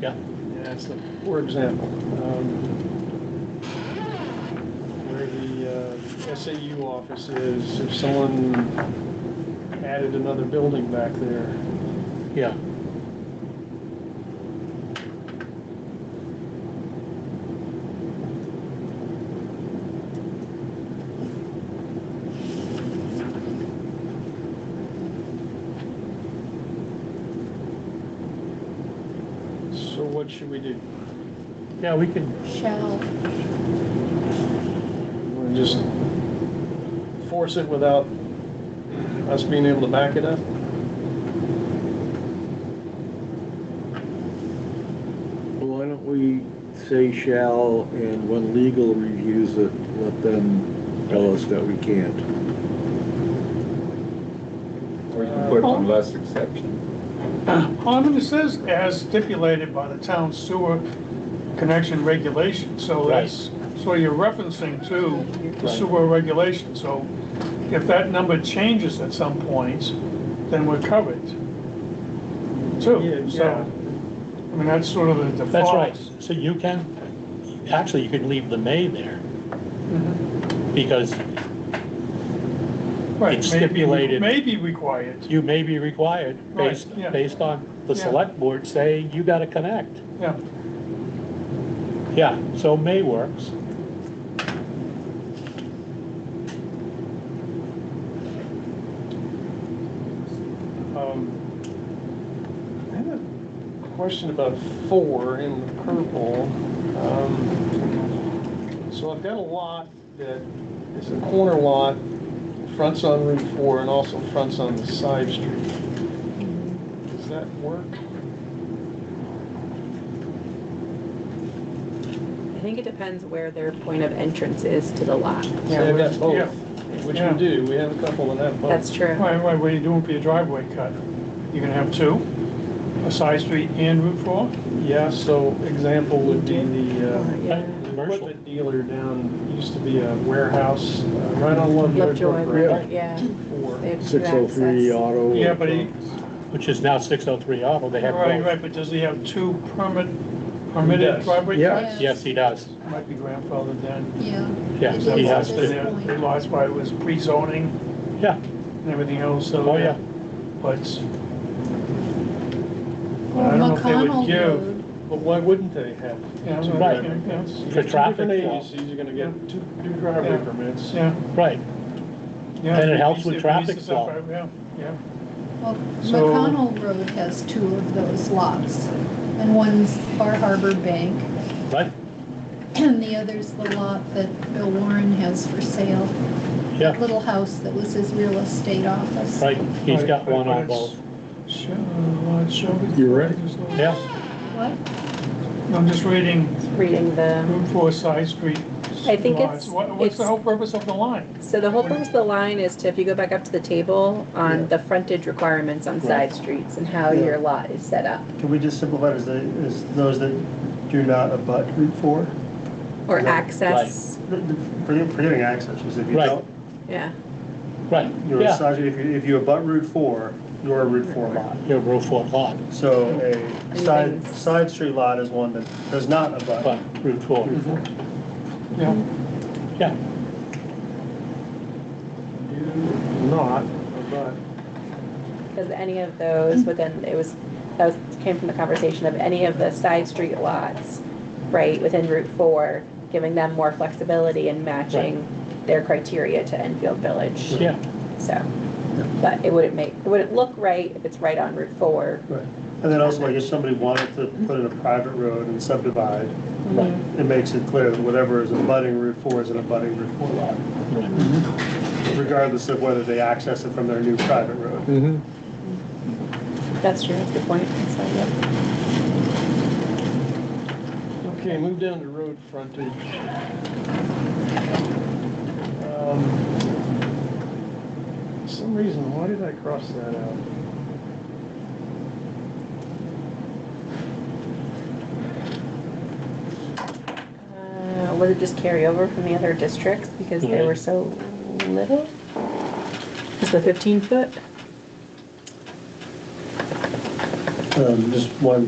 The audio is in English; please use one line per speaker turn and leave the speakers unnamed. Yeah.
That's the, for example, um, where the uh, SAU office is, if someone added another building back there,
Yeah.
so what should we do?
Yeah, we can,
Shall,
We're Just force it without us being able to back it up?
Why don't we say shall, and when legal reviews it, let them tell us that we can't?
Or you can put one less exception.
Harmon says as stipulated by the town sewer connection regulation, so
Right.
that's, so you're referencing to the
Right.
sewer regulation, so if that number changes at some point, then we're covered. Too,
Yeah,
so,
yeah.
I mean, that's sort of the default.
that's right. So you can, actually, you could leave the may there
Mhm.
because
Right,
It's
may be-
stipulated.
May be required,
you may be required
Right,
based,
yeah.
based on the
Yeah.
select board saying you gotta connect.
yeah.
Yeah, so may works.
Um, I had a question about four in the purple. Um, So I've got a lot that is a corner lot, fronts on Route 4 and also fronts on the side street. Does that work?
I think it depends where their point of entrance is to the lot.
So I've got
yeah.
both, which
Yeah.
we do. We have a couple that have both.
That's true.
Right, right, what are you doing for your driveway cut? You can have two, a side street and Route 4?
Yeah, so example would be the, uh,
Yeah.
Commercial.
equipment dealer down, used to be a warehouse, uh, right on Lovejoy Brook
Lovejoy,
Road.
yeah.
Four.
They have two
Six oh three
access.
auto.
Yeah, but he-
Which is now six oh three auto, they have
Right,
both.
right, but does he have two permit,
He
permitted
does.
driveway
Yeah.
cuts?
Yes, he does.
Might be grandfathered then.
yeah.
Yeah,
It
he
is at
has
this
to,
point.
They lost by, it was pre-zoning
yeah,
and everything else, so.
oh, yeah.
But.
Or
I don't know if they
McConnell
would give.
Road,
But why wouldn't they have?
Yeah,
two
right.
driveway permits? You
For
get two
traffic
different
flow.
Agencies, you're gonna get two, two driveway
Yeah.
permits.
Yeah,
Right,
yeah.
And it helps with
It
traffic
eases up,
flow.
Yeah, yeah.
Well,
So-
McConnell Road has two of those lots, and one's Bar Harbor Bank,
right,
and the other's the lot that Bill Warren has for sale.
yeah,
Little house that was his real estate office.
right, he's
Right,
got
but-
one
but
on
it's-
both,
Sure, uh, sure.
You're right.
yeah.
What?
I'm just reading
Reading the,
Route 4 side street.
I think
lots.
it's-
What- What's the
it's-
whole purpose of the line?
so the whole purpose of the line is to, if you go back up to the table, on the frontage requirements on
Right.
side streets and how your lot is set up.
Can we just simplify it as the, as those that do not abut Route 4?
Or
Right.
access,
The- the- forget- Forgetting access, because if you
Right.
don't,
yeah.
Right,
you're a
yeah,
side- if you, if you abut Route 4, you're a Route 4 lot.
your roof for lot,
So a side, side street lot is one that does not abut.
but Route four,
Yeah.
yeah,
Not, but.
Because any of those within, it was, that was, came from the conversation of any of the side street lots, right, within Route Four, giving them more flexibility and matching their criteria to Enfield Village.
yeah,
So, but it wouldn't make, it wouldn't look right if it's right on Route Four.
Right. And then also, like, if somebody wanted to put in a private road and subdivide,
right,
it makes it clear that whatever is abutting Route 4 is an abutting Route 4 lot,
right,
regardless of whether they access it from their new private road.
That's true, that's a good point. So, yeah.
Okay, move down to road frontage. Um, for Some reason, why did I cross that out?
Uh, Was it just carryover from the other districts because they were
Right.
so little? Is the fifteen foot?
Um, Just one